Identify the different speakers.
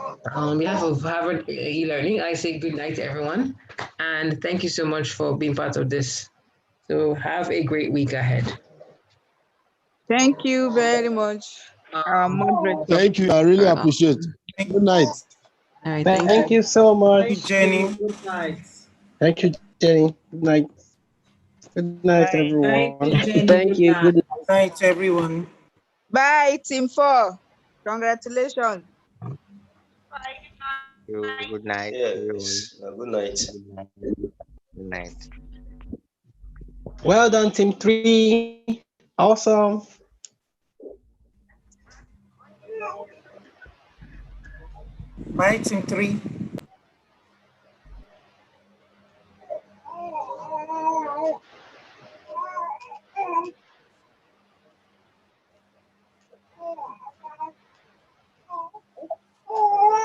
Speaker 1: On behalf of Harvard e-, eLearning, I say good night to everyone. And thank you so much for being part of this. So have a great week ahead.
Speaker 2: Thank you very much, our moderator.
Speaker 3: Thank you. I really
Speaker 1: Fair enough.
Speaker 3: appreciate. Good night.
Speaker 1: All right, thank you.
Speaker 4: Thank you so much.
Speaker 5: Jenny.
Speaker 6: Good night.
Speaker 4: Thank you, Jenny. Good night. Good night, everyone.
Speaker 6: Thank you. Jenny.
Speaker 5: Night, everyone.
Speaker 2: Bye, team four. Congratulations.
Speaker 7: Good night.
Speaker 8: Yes. Uh, Good night.
Speaker 7: Good night.
Speaker 4: Well done, team three. Awesome.
Speaker 5: Bye, team three.